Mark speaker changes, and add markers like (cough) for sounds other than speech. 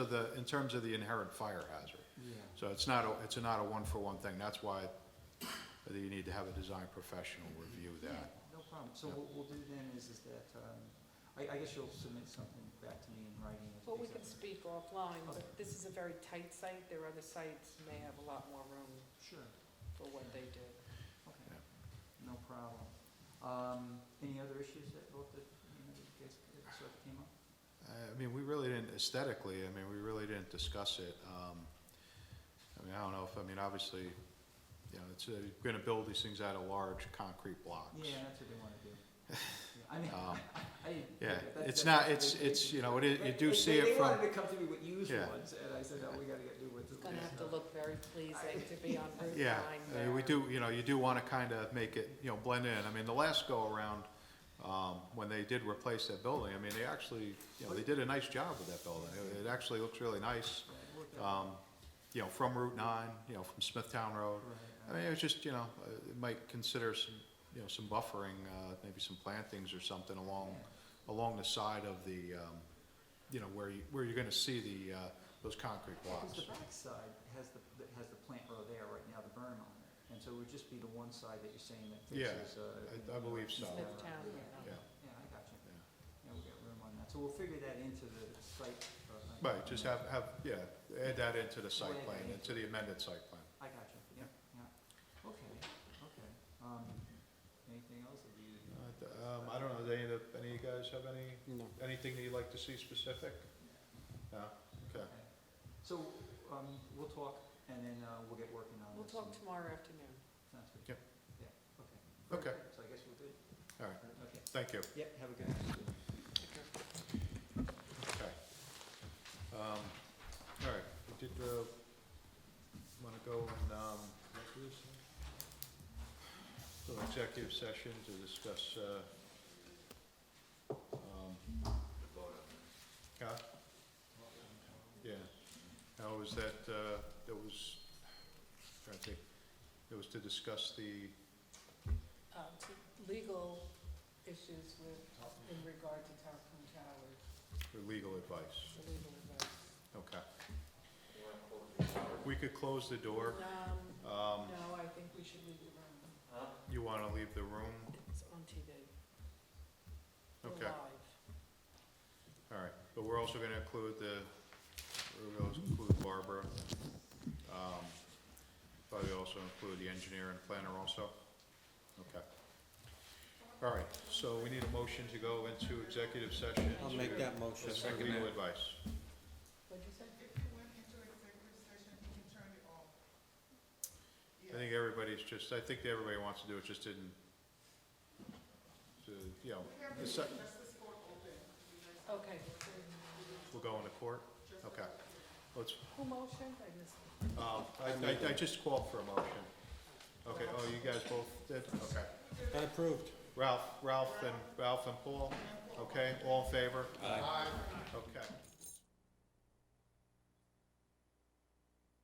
Speaker 1: of the, in terms of the inherent fire hazard. So it's not, a- it's not a one-for-one thing, that's why you need to have a design professional review that.
Speaker 2: No problem. So what we'll do then is, is that, um, I, I guess you'll submit something back to me in writing. as
Speaker 3: Well, we
Speaker 2: based on-
Speaker 3: can speak offline, but
Speaker 2: Okay.
Speaker 3: this is a very tight site, their other sites may have a lot more room
Speaker 2: Sure,
Speaker 3: for what they do.
Speaker 2: okay, no problem. Um, any other issues that, both that, you know, that you guys, that sort of came up?
Speaker 1: I I mean, we really didn't, aesthetically, I mean, we really didn't discuss it. Um, I mean, I don't know if, I mean, obviously, you know, it's, uh, you're gonna build these things out of large concrete blocks.
Speaker 2: Yeah, that's what they
Speaker 1: (laughs)
Speaker 2: wanna do. Yeah, I mean,
Speaker 1: Um,
Speaker 2: I didn't.
Speaker 1: Yeah,
Speaker 2: that-
Speaker 1: it's
Speaker 2: that's
Speaker 1: not,
Speaker 2: what
Speaker 1: it's,
Speaker 2: they-
Speaker 1: it's,
Speaker 2: they-
Speaker 1: you know, it is, you
Speaker 2: they-
Speaker 1: do see
Speaker 2: they-
Speaker 1: it from.
Speaker 2: They wanted to come to me with used
Speaker 1: Yeah.
Speaker 2: ones, and I said, no, we gotta get new ones.
Speaker 3: It's gonna have to look very pleasing to be on Route 9
Speaker 1: Yeah, I mean, we
Speaker 3: there.
Speaker 1: do, you know, you do want to kind of make it, you know, blend in. I mean, the last go-around, um, when they did replace that building, I mean, they actually, you know, they did a nice job with that building. It- It actually looks really nice,
Speaker 2: Yeah, it worked out.
Speaker 1: um, you know, from Route nine, you know, from Smithtown Road.
Speaker 2: Right,
Speaker 1: I
Speaker 2: right.
Speaker 1: mean, it was just, you know, uh, it might consider some, you know, some buffering, uh, maybe some plantings or something along,
Speaker 2: Yeah.
Speaker 1: along the side of the, um, you know, where you, where you're gonna see the, uh, those concrete
Speaker 2: Because
Speaker 1: blocks.
Speaker 2: the backside has the, that has the plant row there right now, the berm on it, and so it would just be the one side that you're saying that
Speaker 1: Yeah,
Speaker 2: fixes, uh.
Speaker 1: I-
Speaker 2: you
Speaker 1: I
Speaker 2: know,
Speaker 1: believe
Speaker 2: east
Speaker 1: so.
Speaker 2: of-
Speaker 3: Smithtown,
Speaker 1: Yeah.
Speaker 2: Yeah, yeah, I got you,
Speaker 1: Yeah.
Speaker 2: yeah, we got room on that, so we'll figure that into the site. uh, uh,
Speaker 1: Right, just have, have, yeah, add that into the site
Speaker 2: Right.
Speaker 1: plan, into the amended site plan.
Speaker 2: I got you, yeah, yeah, okay, okay, um, anything else that you?
Speaker 1: Um, I don't know, do any of, the- any of you guys have any,
Speaker 4: No.
Speaker 1: anything that you'd like to see specific? No, okay.
Speaker 2: Okay. So, um, we'll talk, and then, uh, we'll get working on
Speaker 3: We'll
Speaker 2: this.
Speaker 3: talk
Speaker 2: and-
Speaker 3: tomorrow afternoon.
Speaker 2: Sounds good.
Speaker 1: Yep.
Speaker 2: Yeah, okay.
Speaker 1: Okay.
Speaker 2: So I guess we'll do it.
Speaker 1: All right,
Speaker 2: Okay,
Speaker 1: thank you,
Speaker 2: yep, have a good afternoon.
Speaker 1: okay. Um, all right, we did, uh, wanna go and, um, go to executive session to discuss, uh, um. Huh? Yeah, how was that, uh, that was, trying to think, it was to discuss the,
Speaker 3: Uh, to Legal issues with, in regard to Tarpon Towers,
Speaker 1: the legal advice,
Speaker 3: the legal advice.
Speaker 1: okay. We could close the door,
Speaker 3: Um,
Speaker 1: um,
Speaker 3: no, I think we should leave the room.
Speaker 2: Հա։
Speaker 1: you wanna leave the room,
Speaker 3: It's on TV. We're
Speaker 1: Okay.
Speaker 3: live.
Speaker 1: all right, but we're also gonna include the, we're gonna include Barbara. Um, probably also include the engineer and planner also, okay. All right, so we need a motion to go into executive session.
Speaker 4: I'll
Speaker 1: to
Speaker 4: make that motion.
Speaker 1: discuss Legal advice.
Speaker 3: What'd you say?
Speaker 1: I think everybody's just, I think everybody wants to do it, just didn't, to, you know, the sec-
Speaker 3: Okay.
Speaker 1: we'll go into court? Okay. Let's,
Speaker 3: Who motioned? I missed.
Speaker 1: um, I, I, I just called for a motion. Okay, oh, you guys both did, okay.
Speaker 4: I approved.
Speaker 1: Ralph, Ralph and, Ralph and Paul, okay, all in favor? Aye. Okay.